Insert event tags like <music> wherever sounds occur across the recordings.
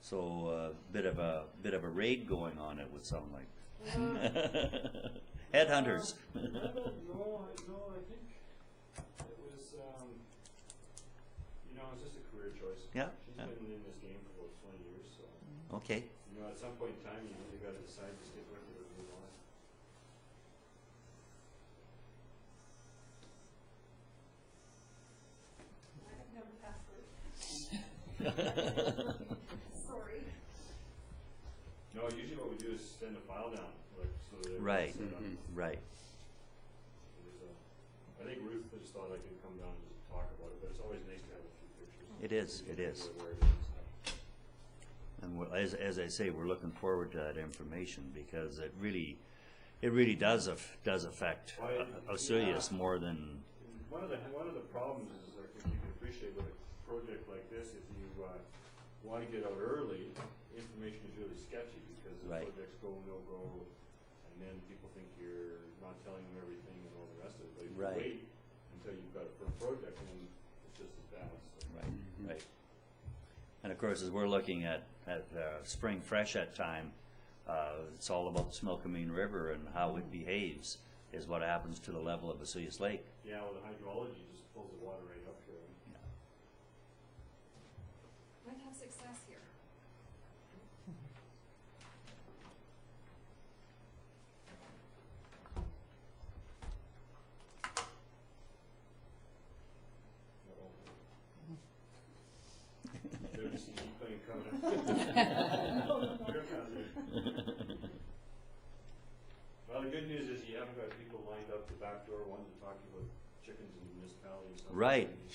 So a bit of a bit of a raid going on. It would sound like <laughs> headhunters. Uh, I don't know, I, no, I think it was, um, you know, it's just a career choice. Yeah, She's yeah. been in this game for about twenty years, so, okay. you know, at some point in time, you really gotta decide to stick with it or move on. <laughs> I have no password. Sorry. No, usually what we do is send a file down, like, so that. everyone's Right. set up. Mhm. right. There's a- I think Ruth just thought I could come down and just talk about it, but it's always nice to have a few pictures. It is, You it can is. figure out where it is and stuff. And we're- as, as I say, we're looking forward to that information because it really, it really does af- does affect Oh, yeah. Osulius more than And One of the, one of the problems is, like, if you can appreciate with a project like this, if you, uh, wanna get out early, information is really sketchy, because the Right. project's go, no go, and then people think you're not telling them everything and all the rest of it, but if you Right. wait until you've got a firm project, then it's just as bad, so. Right, right. And of course, as we're looking at, at uh, spring fresh at time, uh, it's all about the Smilkameen River and how it behaves is what happens to the level of Vesuvius Lake. Yeah, well, the hydrology just pulls the water right up here. Might have success here. Have you ever seen Deep Plane <laughs> coming Well, the good news is you haven't got people lined up the back door wanting to talk to you about chickens and municipality and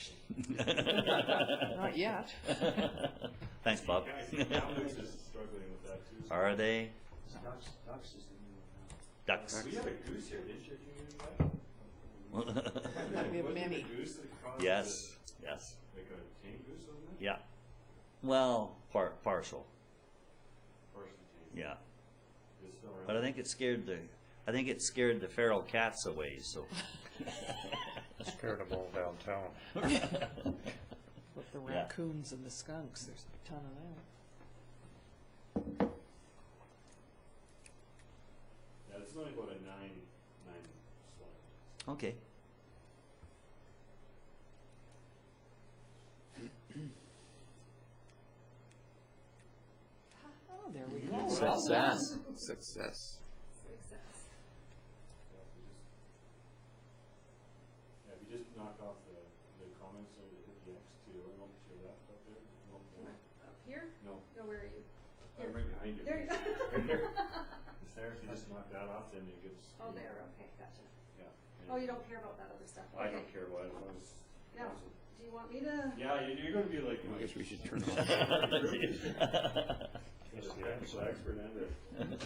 Right. stuff. Not yet. Thanks, Bob. Yeah, I think Kamloops is struggling with that <laughs> too. Are they Ducks, ducks is the new one ducks? We had a goose here, didn't you, a few years <laughs> back? We have Wasn't it many. the goose that caused Yes, yes, the- Like a tame goose, wasn't it? yeah. Well, par- partial, Partially tame. yeah. It's still around. But I think it scared the, I think it scared the feral cats away, so. Scared them all downtown. With the Yeah. raccoons and the skunks, there's a ton of that. Yeah, it's only about a nine, nine slide. Okay. <laughs> Oh, there we go. Success. Success. Success. Yeah, if you just, yeah, if you just knock off the, the comments or the hit the X to, I don't know if you're left up there. No, Come on, Up here? No, No, where are you? I'm right behind you. <laughs> There you go. Right <laughs> there. It's there, if you just knock that off, then it gets. Oh, there, okay, gotcha. Yeah. Oh, you don't care about that other stuff? I Okay. don't care about it, as long as. No. Do you want me to? Yeah, you- you're gonna be like. I my- guess we should turn You're it off. the technical expert and the-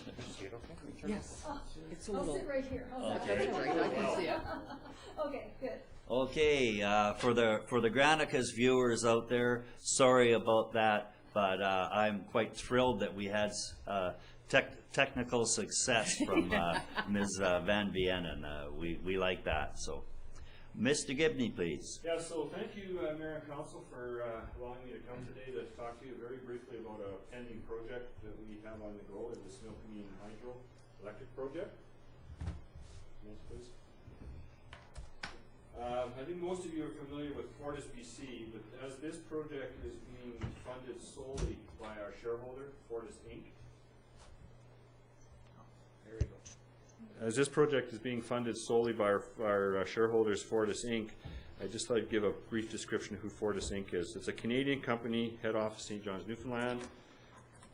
Yes, it's a I'll little. sit right here. How's that? Okay. Right, I can see it. Okay, good. Okay, uh, for the, for the Granicus viewers out there, sorry about that, but, uh, I'm quite thrilled that we had, uh, tech, technical success from, uh, Ms. uh, Van Vienen. Uh, we, we like that, so. Mr. Gibney, please. Yeah, so thank you, uh, Mayor and Council, for uh, allowing me to come today to talk to you very briefly about a pending project that we have on the go, the Snoqualmie Hydro Electric Project. Next, please. Um, I think most of you are familiar with Fortis BC, but as this project is being funded solely by our shareholder, Fortis Inc. There we go as Uh, this project is being funded solely by our, our uh, shareholders, Fortis Inc., I'd just like to give a brief description of who Fortis Inc. is. It's a Canadian company, head office St. John's, Newfoundland.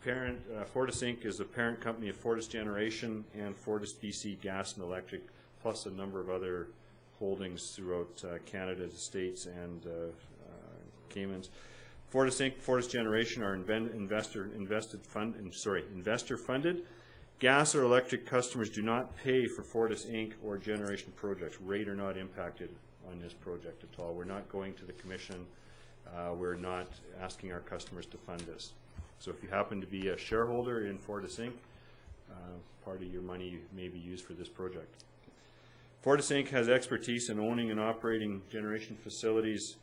Parent, uh, Fortis Inc. is the parent company of Fortis Generation and Fortis BC Gas and Electric, plus a number of other holdings throughout uh, Canada, the States, and uh, uh, Caymans. Fortis Inc., Fortis Generation are inven- investor, invested fund, in- sorry, investor-funded. Gas or electric customers do not pay for Fortis Inc. or generation projects. Rate are not impacted on this project at all. We're not going to the commission. Uh, We're not asking our customers to fund this. So if you happen to be a shareholder in Fortis Inc., uh, part of your money may be used for this project. Fortis Inc. has expertise in owning and operating generation facilities